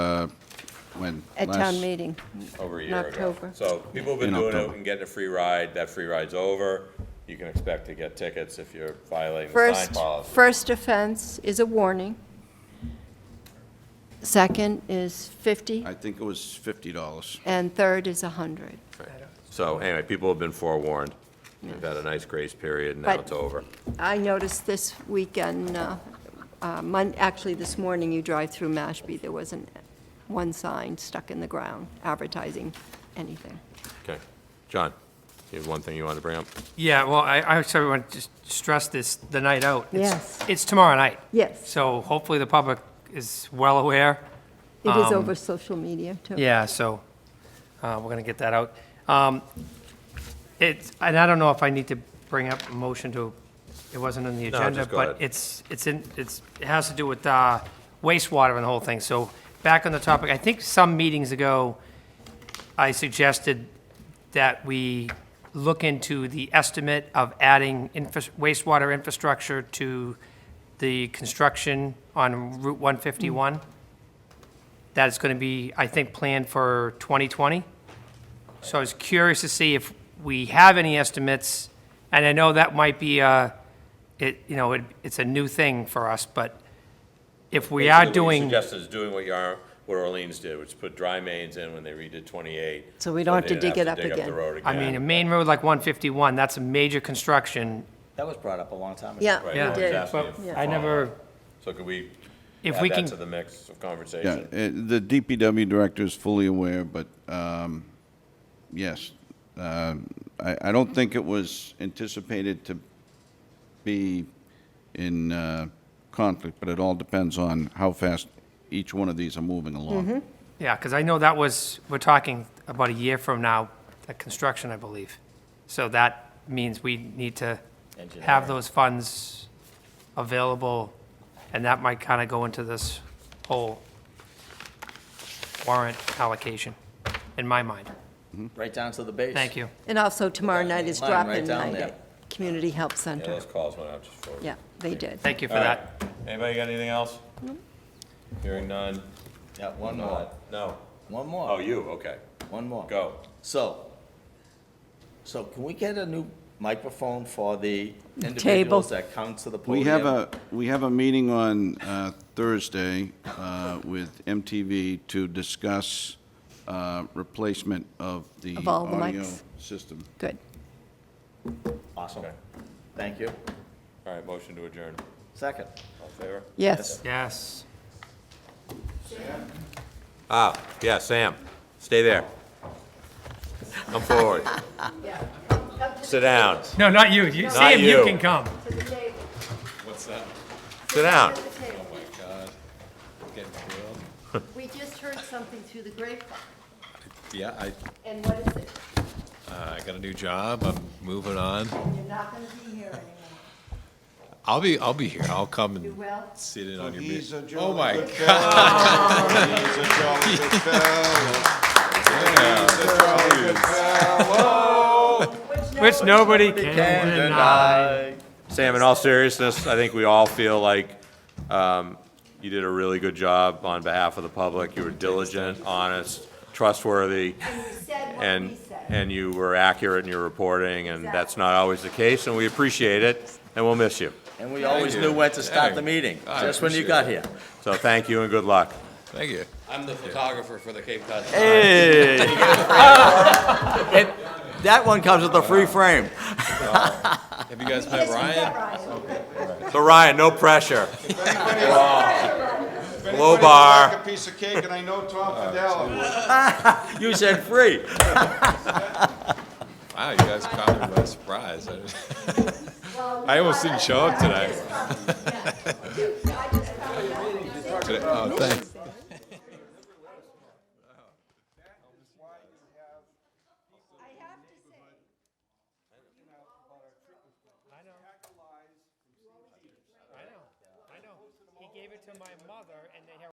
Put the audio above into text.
when? At last- town meeting. over a in year ago. October. So people have been In doing it October. and getting a free ride. That free ride's over. You can expect to get tickets if you're violating the sign First, policy. first offense is a warning. Second is 50, I think it was fifty dollars. and third is 100. So anyway, people have been forewarned. We've had a nice grace period, and now But- it's over. I noticed this weekend, uh, uh, Mon, actually this morning, you drive through Mashpee, there wasn't one sign stuck in the ground advertising anything. Okay. John, you have one thing you wanted to bring up? Yeah, well, I, I actually want to just stress this, the night out. It's- Yes. It's tomorrow night. Yes, So hopefully the public is well aware. it is over social media, too. Um, Yeah, so, uh, we're gonna get that out. Um, it's, and I don't know if I need to bring up a motion to, it wasn't on the No, agenda, just go but ahead. it's, it's in, it's, it has to do with, uh, wastewater and the whole thing. So, back on the topic, I think some meetings ago, I suggested that we look into the estimate of adding infra- wastewater infrastructure to the construction on Route 151. That's going to be, I think, planned for 2020. So I was curious to see if we have any estimates, and I know that might be, uh, it, you know, it- it's a new thing for us, but if we are Basically, What you doing. suggested is doing what you are, what Orleans did, which put dry mains in when they redid 28. So we don't have they to didn't dig it up Dig up the again. road I again. mean, a main road like 151, that's a major construction. That was brought up a long time ago. Yeah, Right, Yeah, we no, did. exactly. but I never, So could we If add we that can- to the mix of Yeah, conversation? eh, the DPW director is fully aware, but, um, yes. Um, I, I don't think it was anticipated to be in, uh, conflict, but it all depends on how fast each one of these are moving along. yeah, because I know that was, we're talking about a year from now, that construction, I believe. So that means we need to have Engineering. those funds available, and that might kind of go into this whole warrant allocation, in my mind. Right down to the base. Thank you. And also tomorrow night is Line right drop-in down night there. at Community Help Yeah, Center. those calls went out just for. Yeah, they did. Thank you for All right. that. Anybody got anything else? Hearing none. Uh, Yeah, one more, No. one Oh, more, you, okay. one more. Go. So, so can we get a new microphone for the Table. individuals that come to the podium? We have a, we have a meeting on uh, Thursday uh, with MTV to discuss uh, replacement of the Of all the audio mics. system. Good. Awesome. Okay. Thank you. All right, motion to adjourn. Second. All in favor? Yes. Yes. Ah, yeah, Sam, stay there. Come forward. Sit down, No, not you. You- Sam, you you. can come. sit down. We just heard something through the grapevine, Yeah, I, and what is it? uh, I got a new job, I'm moving on. You're not going to be here anymore. I'll be, I'll be here, I'll come and Well, sit in on your meeting. He's a jolly Oh, my good God. fellow. He's a jolly good fellow. He's a jolly good fellow. Which nobody can deny. Sam, in all seriousness, I think we all feel like um, you did a really good job on behalf of the public. You were diligent, honest, trustworthy, said what we and, said. and you were accurate in your reporting, and that's not always the case, and we appreciate it, and we'll miss you. And we always you. knew when to start the Hey, meeting, I just when you appreciate got it. here. So thank you and good luck. Thank you. I'm the photographer for the Cape Cod. Hey! And that one comes with a free frame. Have you guys met Ryan? So Ryan, no pressure. If anybody Low would bar. like a piece of cake, and I know Tom Fidel would. You said free. Wow, you guys caught me by surprise. I didn't- I almost didn't show up today. Today- Oh, thanks. I know, I know. He gave it to my mother, and they had